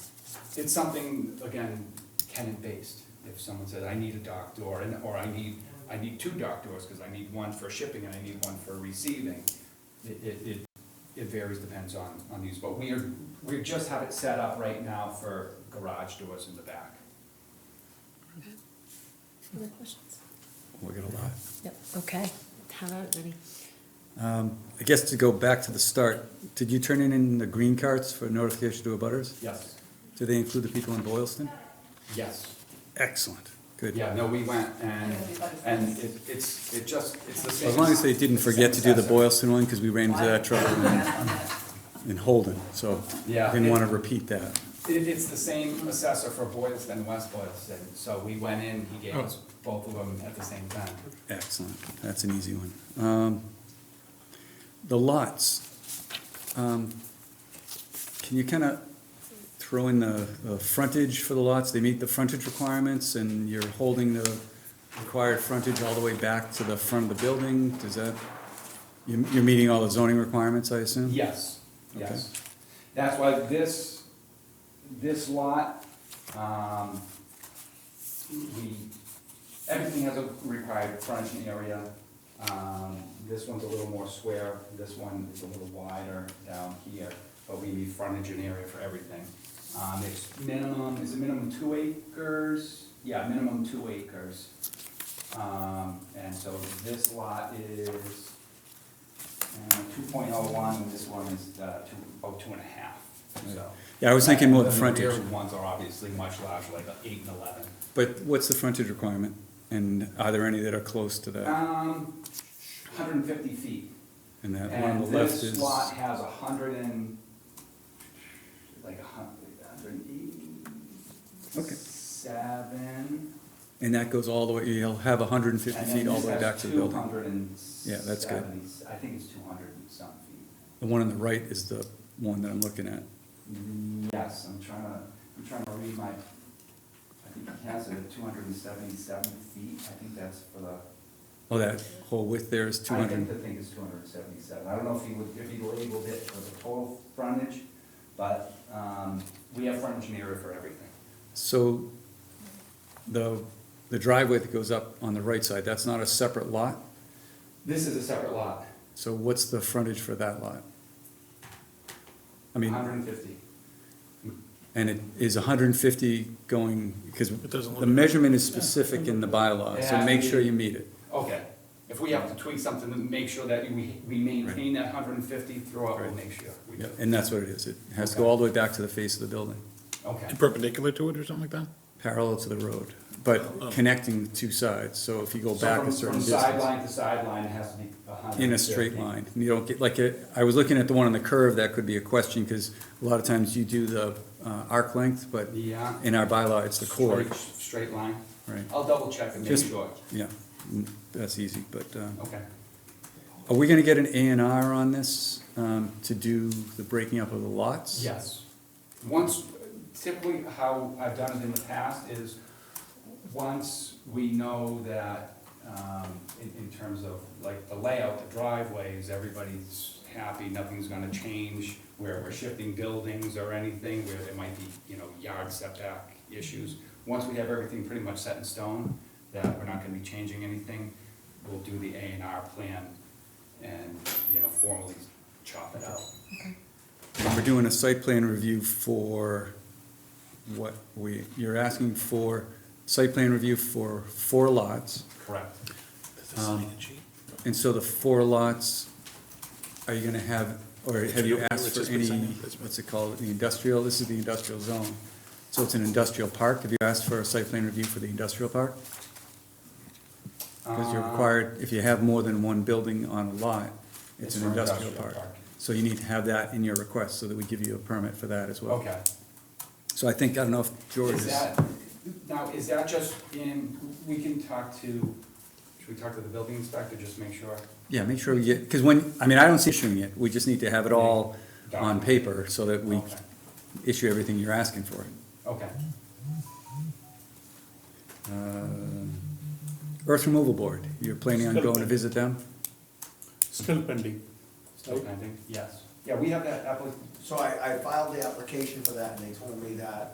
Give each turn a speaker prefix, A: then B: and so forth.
A: it's something, again, tenant-based. If someone says, I need a dock door, and, or I need, I need two dock doors, because I need one for shipping and I need one for receiving, it, it, it- it varies, depends on, on these, but we are, we just have it set up right now for garage doors in the back.
B: Other questions?
C: We got a lot.
B: Yep, okay. How about ready?
C: Um, I guess to go back to the start, did you turn in in the green cards for notification to abutters?
A: Yes,
C: Do they include the people in Boylston?
A: yes.
C: Excellent, good.
A: Yeah, no, we went and, and it, it's, it just, it's the same.
C: As long as they didn't forget to do the Boylston one, because we ran into that trouble in- in Holden, so
A: Yeah.
C: didn't want to repeat that.
A: It, it's the same assessor for Boylston and West Boylston, so we went in, he gave us both of them at the same time.
C: Excellent, that's an easy one. Um, The lots, um, can you kind of throw in the, the frontage for the lots? They meet the frontage requirements and you're holding the required frontage all the way back to the front of the building? Does that, you- you're meeting all the zoning requirements, I assume?
A: Yes,
C: Okay.
A: yes. That's why this, this lot, um, we, everything has a required frontage area. Um, this one's a little more square, this one is a little wider down here, but we need frontage and area for everything. Um, it's minimum, is it minimum two acres? Yeah, minimum two acres. Um, and so this lot is, Two point oh one, this one is uh, two, oh, two and a half, so.
C: Yeah, I was thinking more the
A: And
C: frontage,
A: rear ones are obviously much larger, like eight and eleven.
C: but what's the frontage requirement? And are there any that are close to that?
A: Um, hundred and fifty feet.
C: And that one on
A: And
C: the left
A: this
C: is,
A: lot has a hundred and, like a hun, hundred and
C: Okay.
A: eighty-seven.
C: and that goes all the way, you'll have hundred and fifty feet all the way back to the building?
A: Two hundred and
C: Yeah, that's good.
A: seventy, I think it's two hundred and some feet.
C: The one on the right is the one that I'm looking at.
A: Yes, I'm trying to, I'm trying to read my, I think he has it at two hundred and seventy-seven feet, I think that's for the,
C: Oh, that whole width there is two
A: I think the
C: hundred.
A: thing is two hundred and seventy-seven, I don't know if he would, if he labeled it for the total frontage, but, um, we have frontage and area for everything.
C: So the, the driveway that goes up on the right side, that's not a separate lot?
A: This is a separate lot,
C: So what's the frontage for that lot? I
A: hundred
C: mean,
A: and fifty.
C: and it is hundred and fifty going, because
D: doesn't
C: the
D: look-
C: measurement is specific in the bylaw, so
A: Yeah.
C: make sure you meet it.
A: Okay, if we have to tweak something to make sure that we, we maintain that hundred and fifty throughout, we'll
C: Right.
A: make sure. we
C: Yeah,
A: do.
C: And that's what it is. It has to go all the way back to the face of the building,
A: Okay,
D: Perpendicular to it or something like that?
C: parallel to the road, but connecting the two sides. So if you go
A: Oh. so
C: back
A: from,
C: a certain
A: from
C: distance.
A: sideline to sideline, it has to be hundred and fifty.
C: in a straight line. You don't get, like, uh, I was looking at the one on the curve, that could be a question, because a lot of times you do the uh, arc length, but
A: Yeah.
C: in our bylaw, it's the chord.
A: Straight- Straight line?
C: Right.
A: I'll double check and make
C: Just-
A: sure.
C: Yeah, mm, that's easy, but, um,
A: Okay.
C: are we gonna get an A and R on this, um, to do the breaking up of the lots?
A: Yes. Once, typically how I've done it in the past is, once we know that, um, in, in terms of like the layout, the driveways, everybody's happy, nothing's gonna change, where we're shifting buildings or anything, where there might be, you know, yard setback issues. Once we have everything pretty much set in stone, that we're not gonna be changing anything, we'll do the A and R plan and, you know, formally chop it out.
C: And We're doing a site plan review for what we, you're asking for site plan review for four lots.
A: Correct.
C: And so the four lots, are you gonna have, or have you asked for any, what's it called, the industrial, this is the industrial zone. So it's an industrial park, have you asked for a site plan review for the industrial park? Because
A: Uh,
C: you're required, if you have more than one building on a lot,
A: It's
C: it's an
A: for
C: industrial
A: industrial
C: park.
A: park.
C: So you need to have that in your request, so that we give you a permit for that as well.
A: Okay.
C: So I think, I don't know if George
A: Is
C: is,
A: that, now, is that just in, we can talk to, should we talk to the building inspector, just make sure?
C: yeah, make sure we get, because when, I mean, I don't see issuing it, we just need to have it all on paper, so that we
A: Okay.
C: issue everything you're asking for.
A: Okay,
C: Uh, Earth Removal Board, you're planning on going to visit them?
D: Still pending.
A: still pending, yes. Yeah, we have that applic,
E: So I, I filed the application for that, and they told me that